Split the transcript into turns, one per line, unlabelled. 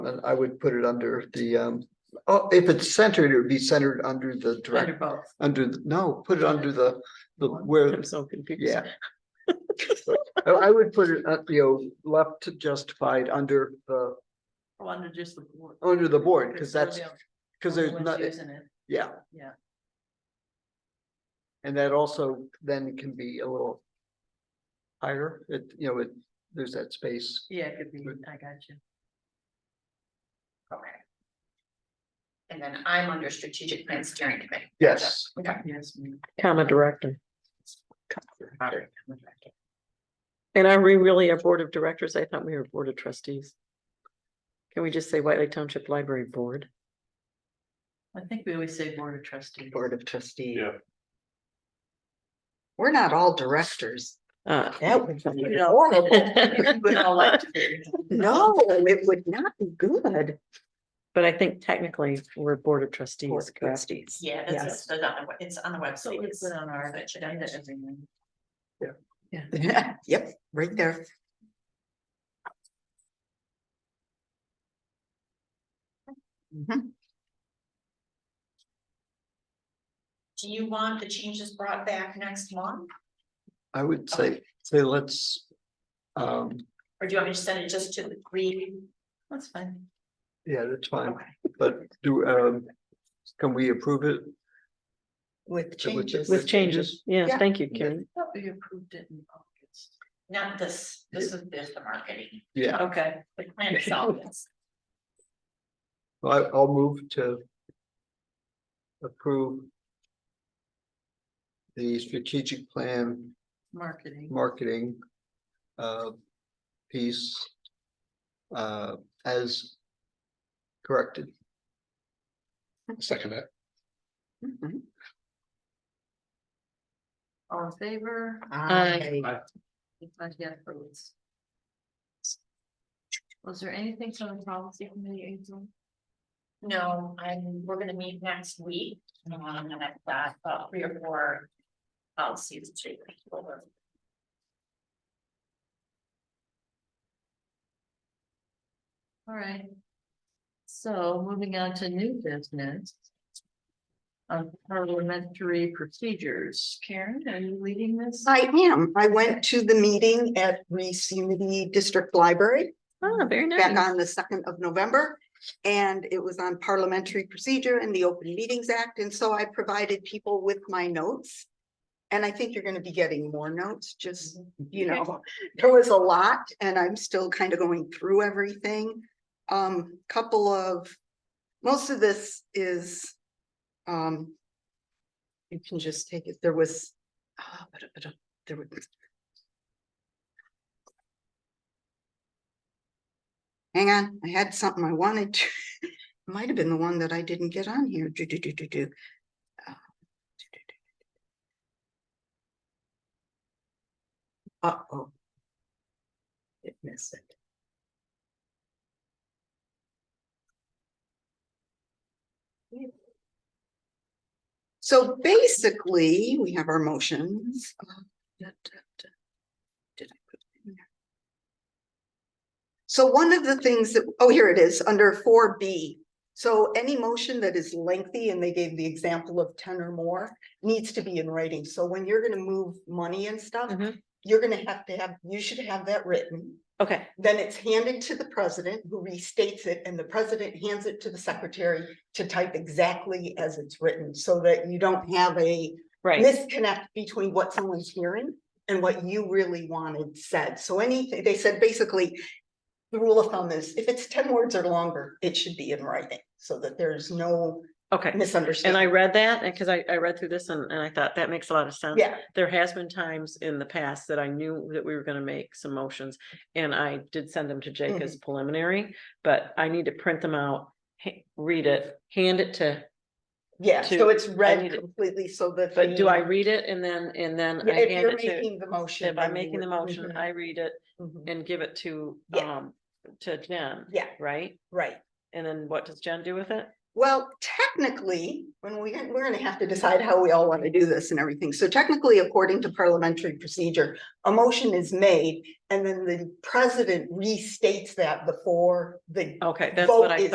And I would put it under the, um, oh, if it's centered, it would be centered under the
Under
direct,
both.
under, the no, put it under the, the, where,
I'm so confused.
yeah. I, I would put it, at, you know, left to justified under the,
Oh, Under just the board.
under the board, because
they're
that's,
the-
because
they're the
there's
ones
not,
Using it,
yeah.
yeah.
And that also then can be a little higher, it, you know, it, there's that space.
Yeah, it could be,
Good.
I got you.
Okay. And then I'm under strategic plan steering committee.
Yes.
Okay.
Yes. ma'am.
comma director.
All right.
And are we really a board of directors? I thought we were a board of trustees. Can we just say White Lake Township Library Board?
I think we always say board of trustees.
Board of Trustees.
Yeah.
We're not all directors.
Uh,
That would be
You know.
horrible.
We'd all like to be.
No, it would not be good.
But I think technically we're Board of Trustees, correct?
Trustees.
Yeah, that's,
Yes.
that's on the, we- it's on the
So
website.
we put on our agenda every morning.
Yep, right there. Mhm.
Do you want the changes brought back next month?
I would say, say let's, um,
Or do you want me to send it just to the green?
That's fine.
yeah, that's fine,
Okay.
but do, um, can we approve it?
With
With-
changes.
With changes, yeah,
Yeah.
thank you, Karen.
Thought we approved it in August.
Not this, this is just the marketing,
Yeah,
Okay,
the plan itself is.
I, I'll move to approve the strategic plan
marketing.
marketing uh, piece uh, as corrected.
Second that.
Mhm.
All in favor?
Aye.
If I get approved. Was there anything from the policy committee? Hazel?
No, I'm, we're gonna meet next week, um, and I've got about three or four policies to go over.
All right. So moving on to new business. Um, parliamentary procedures. Karen, are you leading this?
I am. I went to the meeting at Reese Unity District Library.
Oh, very
back
nice.
on the second of November. And it was on parliamentary procedure and the Open Meetings Act, and so I provided people with my notes. And I think you're gonna be getting more notes, just, you know, there was a lot, and I'm still kind of going through everything. Um, couple of, most of this is, um. You can just take it, there was, ah, but, but, there was, Hang on, I had something I wanted to, might have been the one that I didn't get on here. Do, do, do, do, do. Uh, do, do, do, do. Uh-oh. It missed it. So basically, we have our motions. Uh, da, da, da. Did I put it in there? So one of the things that, oh, here it is, under four B. So any motion that is lengthy, and they gave the example of ten or more, needs to be in writing. So when you're gonna move money and stuff,
Mhm.
you're gonna have to have, you should have that written.
Okay,
Then it's handed to the president, who restates it, and the president hands it to the secretary to type exactly as it's written, so that you don't have a
right.
misconnect between what someone's hearing and what you really wanted said. So anything, they said basically, the rule of thumb is if it's ten words or longer, it should be in writing so that there's no
Okay. And I
misunderstanding.
read that and because I, I read through this and, and I thought that makes a lot of sense.
Yeah,
There has been times in the past that I knew that we were gonna make some motions and I did send them to Jake as preliminary, but I need to print them out, ha- read it, hand it to,
yeah.
to-
So it's
I need
read
it.
completely so that.
but do I
the-
read it and then, and then
Yeah,
I
If
hand
you're
it to?
making the motion.
If I'm
then you
making the
would-
motion,
Mhm,
I read it
mhm.
and give it to,
Yeah.
um, to Jen,
Yeah,
right?
right.
And then what does Jen do with it?
Well, technically, when we, we're gonna have to decide how we all want to do this and everything. So technically, according to parliamentary procedure, a motion is made and then the president restates that before the
Okay, that's what
Vote
I
is